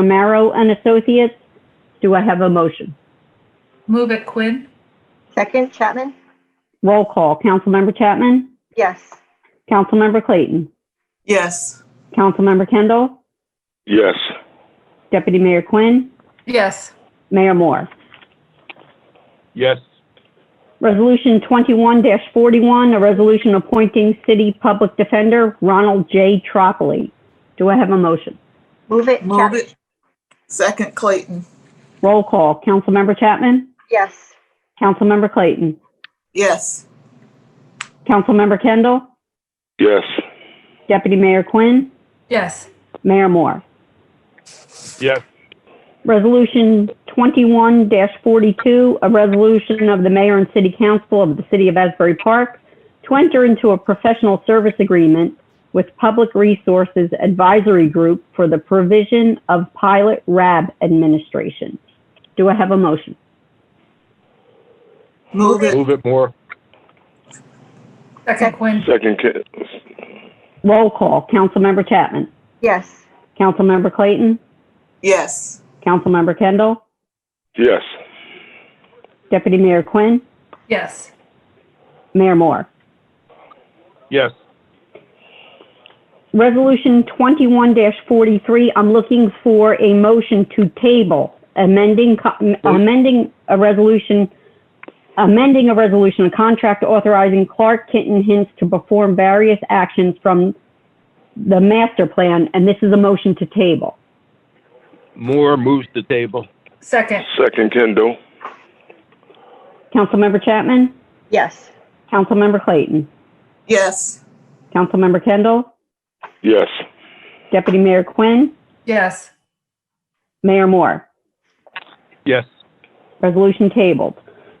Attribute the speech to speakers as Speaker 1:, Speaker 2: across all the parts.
Speaker 1: Mamaro and Associates. Do I have a motion?
Speaker 2: Move it Quinn.
Speaker 3: Second, Chapman?
Speaker 1: Roll call. Councilmember Chapman?
Speaker 3: Yes.
Speaker 1: Councilmember Clayton?
Speaker 4: Yes.
Speaker 1: Councilmember Kendall?
Speaker 5: Yes.
Speaker 1: Deputy Mayor Quinn?
Speaker 2: Yes.
Speaker 1: Mayor Moore?
Speaker 5: Yes.
Speaker 1: Resolution 21-41, a resolution appointing city public defender Ronald J. Tropoli. Do I have a motion?
Speaker 3: Move it,
Speaker 4: Move
Speaker 3: Chapman?
Speaker 4: it. Second Clayton.
Speaker 1: Roll call. Councilmember Chapman?
Speaker 3: Yes.
Speaker 1: Councilmember Clayton?
Speaker 4: Yes.
Speaker 1: Councilmember Kendall?
Speaker 5: Yes.
Speaker 1: Deputy Mayor Quinn?
Speaker 2: Yes.
Speaker 1: Mayor Moore?
Speaker 5: Yes.
Speaker 1: Resolution 21-42, a resolution of the mayor and city council of the city of Asbury Park to enter into a professional service agreement with Public Resources Advisory Group for the provision of pilot RAB administration. Do I have a motion?
Speaker 4: Move it.
Speaker 5: Move it more.
Speaker 2: Second Quinn.
Speaker 5: Second, Ca-
Speaker 1: Roll call. Councilmember Chapman.
Speaker 3: Yes.
Speaker 1: Councilmember Clayton.
Speaker 4: Yes.
Speaker 1: Councilmember Kendall.
Speaker 5: yes.
Speaker 1: Deputy Mayor Quinn.
Speaker 2: Yes.
Speaker 1: Mayor Moore.
Speaker 5: Yes.
Speaker 1: Resolution 21-43, I'm looking for a motion to table amending, co- m- amending a resolution, amending a resolution, a contract authorizing Clark Kitten Hints to perform various actions from the master plan, and this is a motion to table.
Speaker 6: Moore moves the table.
Speaker 2: Second.
Speaker 5: Second Kendall.
Speaker 1: Councilmember Chapman?
Speaker 3: Yes.
Speaker 1: Councilmember Clayton?
Speaker 4: Yes.
Speaker 1: Councilmember Kendall?
Speaker 5: Yes.
Speaker 1: Deputy Mayor Quinn?
Speaker 2: Yes.
Speaker 1: Mayor Moore?
Speaker 6: Yes.
Speaker 1: Resolution tabled.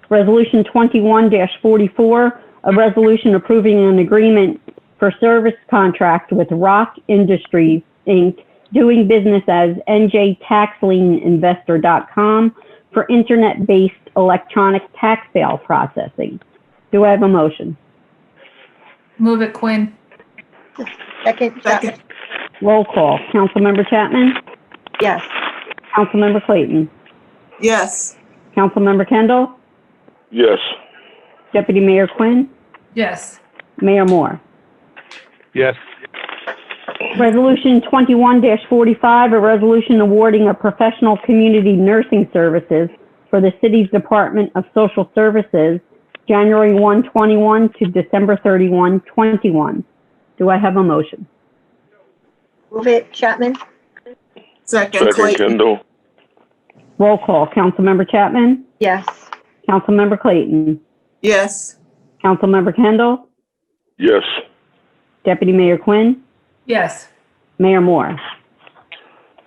Speaker 1: Resolution 21-44, a resolution approving an agreement for service contract with Rock Industries, Inc., doing business as NJ Tax Lien Investor.com for internet-based electronic tax sale processing. Do I have a motion?
Speaker 2: Move it Quinn.
Speaker 3: Second, Chapman?
Speaker 4: Second.
Speaker 1: Roll call. Councilmember Chapman?
Speaker 3: Yes.
Speaker 1: Councilmember Clayton?
Speaker 4: Yes.
Speaker 1: Councilmember Kendall?
Speaker 5: Yes.
Speaker 1: Deputy Mayor Quinn?
Speaker 2: Yes.
Speaker 1: Mayor Moore?
Speaker 6: Yes.
Speaker 1: Resolution 21-45, a resolution awarding a professional community nursing services for the city's Department of Social Services, January 1, 21 to December 31, 21. Do I have a motion?
Speaker 3: Move it, Chapman?
Speaker 4: Second
Speaker 5: Second
Speaker 4: Clayton.
Speaker 5: Kendall.
Speaker 1: Roll call. Councilmember Chapman?
Speaker 3: Yes.
Speaker 1: Councilmember Clayton?
Speaker 4: Yes.
Speaker 1: Councilmember Kendall?
Speaker 5: Yes.
Speaker 1: Deputy Mayor Quinn?
Speaker 2: Yes.
Speaker 1: Mayor Moore?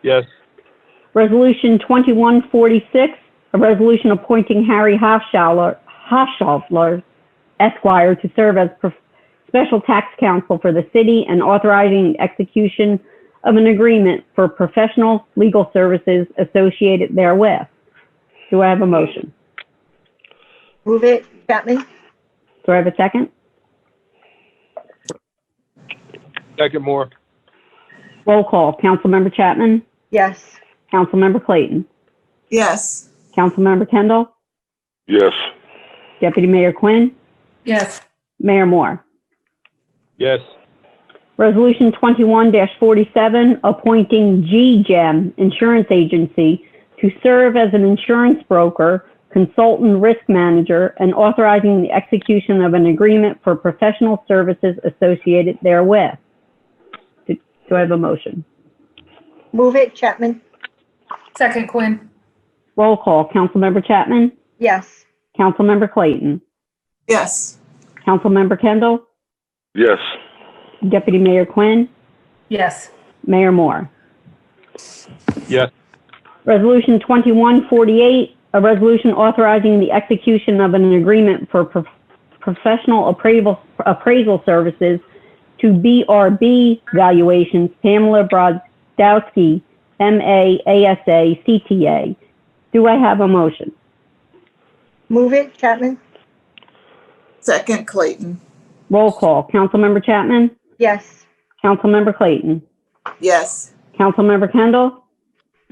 Speaker 6: Yes.
Speaker 1: Resolution 2146, a resolution appointing Harry Hofschaller, Hofschaffler Esquire to serve as prof- special tax counsel for the city and authorizing execution of an agreement for professional legal services associated therewith. Do I have a motion?
Speaker 3: Move it, Chapman?
Speaker 1: Do I have a second?
Speaker 6: Second Moore.
Speaker 1: Roll call. Councilmember Chapman?
Speaker 3: Yes.
Speaker 1: Councilmember Clayton?
Speaker 4: Yes.
Speaker 1: Councilmember Kendall?
Speaker 5: Yes.
Speaker 1: Deputy Mayor Quinn?
Speaker 2: Yes.
Speaker 1: Mayor Moore?
Speaker 6: Yes.
Speaker 1: Resolution 21-47, appointing G-Gem Insurance Agency to serve as an insurance broker, consultant risk manager, and authorizing the execution of an agreement for professional services associated therewith. Do do I have a motion?
Speaker 3: Move it, Chapman?
Speaker 2: Second Quinn.
Speaker 1: Roll call. Councilmember Chapman?
Speaker 3: Yes.
Speaker 1: Councilmember Clayton?
Speaker 4: Yes.
Speaker 1: Councilmember Kendall?
Speaker 5: Yes.
Speaker 1: Deputy Mayor Quinn?
Speaker 2: Yes.
Speaker 1: Mayor Moore?
Speaker 6: Yes.
Speaker 1: Resolution 2148, a resolution authorizing the execution of an agreement for prof- professional appraisal, appraisal services to BRB Valuations Pamela Brodowski, MA, ASA, CTA. Do I have a motion?
Speaker 3: Move it, Chapman?
Speaker 4: Second Clayton.
Speaker 1: Roll call. Councilmember Chapman?
Speaker 3: Yes.
Speaker 1: Councilmember Clayton?
Speaker 4: Yes.
Speaker 1: Councilmember Kendall?